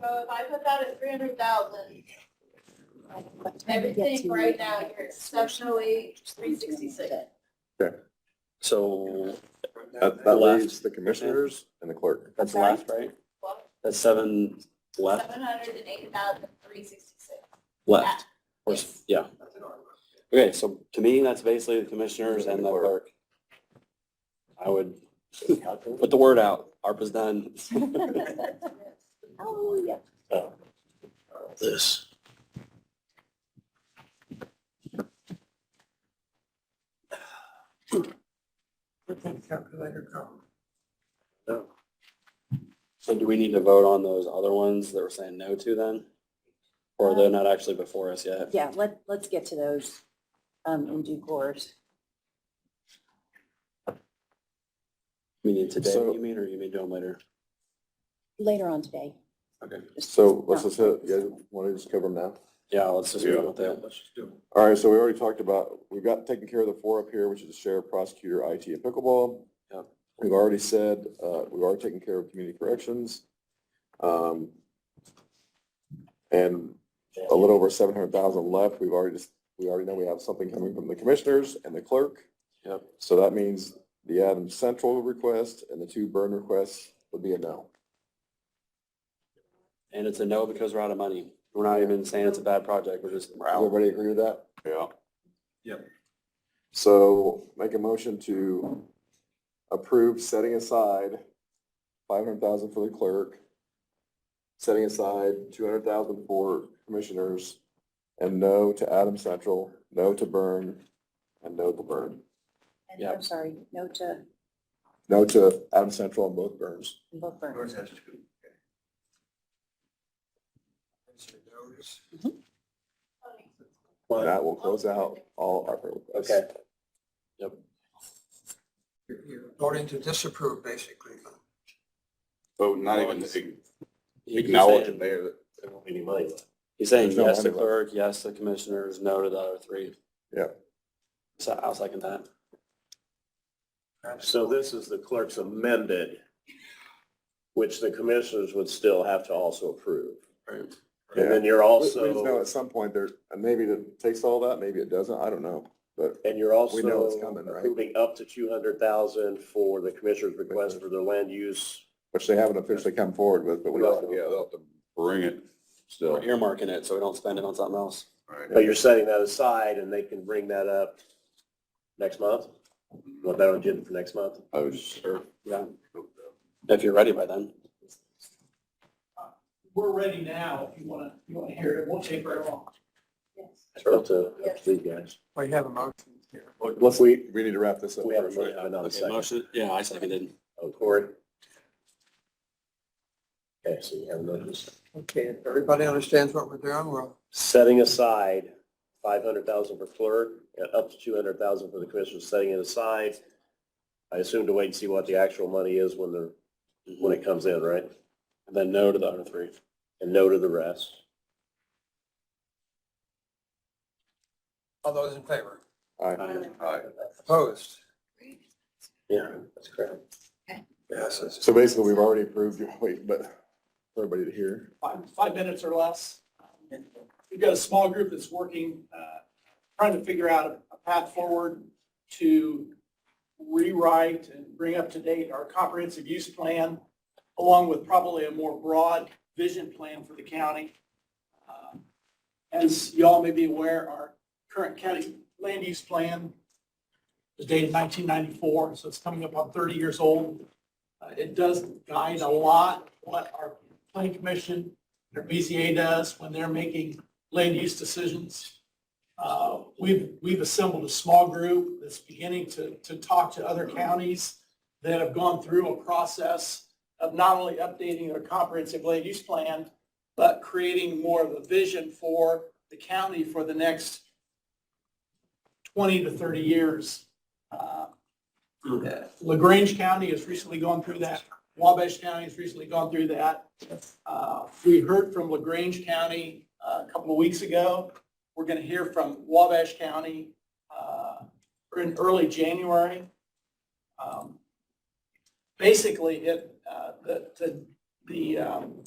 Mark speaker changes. Speaker 1: So if I put that at three hundred thousand, everything right now, you're exceptionally three sixty-six.
Speaker 2: So
Speaker 3: That, that leaves the commissioners and the clerk.
Speaker 2: that's
Speaker 4: Sorry?
Speaker 2: left, right? That's seven left,
Speaker 1: Seven hundred and eight thousand three sixty-six.
Speaker 2: left. Or s- Yeah. Okay, so to me, that's basically the commissioners and the clerk. I would put the word out. ARPA's done.
Speaker 4: Oh, yeah.
Speaker 2: This.
Speaker 3: Calculator come.
Speaker 2: So do we need to vote on those other ones that we're saying no to then? Or they're not actually before us yet?
Speaker 4: Yeah, let, let's get to those um, in due course.
Speaker 2: Meaning today,
Speaker 3: So-
Speaker 2: you mean, or you mean do them later?
Speaker 4: Later on today.
Speaker 2: Okay.
Speaker 3: So let's just, hit- you guys want to just cover them now?
Speaker 2: Yeah, let's just go with that.
Speaker 3: All right, so we already talked about, we've got taken care of the four up here, which is the sheriff, prosecutor, IT, and pickleball.
Speaker 2: Yep.
Speaker 3: We've already said, uh, we are taking care of community corrections. Um, And a little over seven hundred thousand left. We've already, just- we already know we have something coming from the commissioners and the clerk.
Speaker 2: Yep.
Speaker 3: So that means the Adams Central request and the two burn requests would be a no.
Speaker 2: And it's a no because we're out of money. We're not even saying it's a bad project, we're just, we're
Speaker 3: Does
Speaker 2: out.
Speaker 3: everybody agree with that?
Speaker 2: Yeah.
Speaker 3: So make a motion to approve setting aside five hundred thousand for the clerk, setting aside two hundred thousand for commissioners, and no to Adam Central, no to Burn, and no to Burn.
Speaker 4: And
Speaker 2: Yeah.
Speaker 4: I'm sorry, no to
Speaker 3: No to Adam Central and both Burns.
Speaker 4: both burns.
Speaker 3: And That will close out all our requests.
Speaker 2: Okay.
Speaker 5: You're voting to disapprove, basically.
Speaker 6: So not even
Speaker 2: Always.
Speaker 6: ag-
Speaker 2: He- he's
Speaker 6: acknowledge
Speaker 2: saying-
Speaker 6: it there that they don't need any money left.
Speaker 2: He's saying
Speaker 3: There's no
Speaker 2: yes to
Speaker 3: money left.
Speaker 2: clerk, yes to commissioners, no to the other three.
Speaker 3: Yeah.
Speaker 2: So I'll second that.
Speaker 7: So this is the clerk's amended, which the commissioners would still have to also approve. And then you're
Speaker 3: We- We just know
Speaker 7: also,
Speaker 3: at some point there, and maybe it takes all that, maybe it doesn't, I don't know, but
Speaker 7: and you're
Speaker 3: We know it's
Speaker 7: also
Speaker 3: coming, right?
Speaker 7: approving up to two hundred thousand for the commissioner's request for the land use.
Speaker 3: which they haven't officially come forward with, but we
Speaker 6: Well,
Speaker 3: also.
Speaker 6: Yeah, they'll have to bring it
Speaker 2: We're
Speaker 6: still.
Speaker 2: earmarking it so we don't spend it on something else.
Speaker 7: But you're setting that aside and they can bring that up next month? Want that on agenda for next month?
Speaker 6: I was sure.
Speaker 2: Yeah. If you're ready by then.
Speaker 8: we're ready now, if you want to, you want to hear it, it won't take very long.
Speaker 4: Yes.
Speaker 7: It's Up to, up to you guys.
Speaker 5: Well, you have a motion here.
Speaker 7: Look, we,
Speaker 3: We need to wrap this up.
Speaker 7: we have a
Speaker 3: first, right?
Speaker 7: motion, but not a
Speaker 2: Okay,
Speaker 7: second.
Speaker 2: Motion, yeah, I seconded.
Speaker 7: Oh, Corey? Okay, so you have another.
Speaker 5: Okay, if everybody understands what we're doing, well,
Speaker 7: setting aside five hundred thousand for clerk, and up to two hundred thousand for the commissioners, setting it aside. I assume to wait and see what the actual money is when the, when it comes in, right?
Speaker 2: And then no to the other three.
Speaker 7: And no to the rest.
Speaker 5: all those in favor?
Speaker 3: All right.
Speaker 2: Aye.
Speaker 5: Opposed?
Speaker 7: Yeah, that's correct.
Speaker 5: Yes. it's-
Speaker 3: So basically, we've already approved your wait, but for everybody to hear.
Speaker 8: Five, five minutes or less. We've got a small group that's working, uh, trying to figure out a- a path forward to rewrite and bring up to date our comprehensive use plan, along with probably a more broad vision plan for the county. Uh, As y'all may be aware, our current county land use plan is dated 1994, so it's coming up on 30 years old. Uh, It does guide a lot what our planning commission, their BZA does when they're making land use decisions. Uh, We've, we've assembled a small group that's beginning to, to talk to other counties that have gone through a process of not only updating their comprehensive land use plan, but creating more of a vision for the county for the next 20 to 30 years. Uh, LaGrange County has recently gone through that. Wabash County has recently gone through that. Uh, We heard from LaGrange County uh, a couple of weeks ago. We're going to hear from Wabash County uh, in early January. Um, Basically, it, uh, the, the- the um,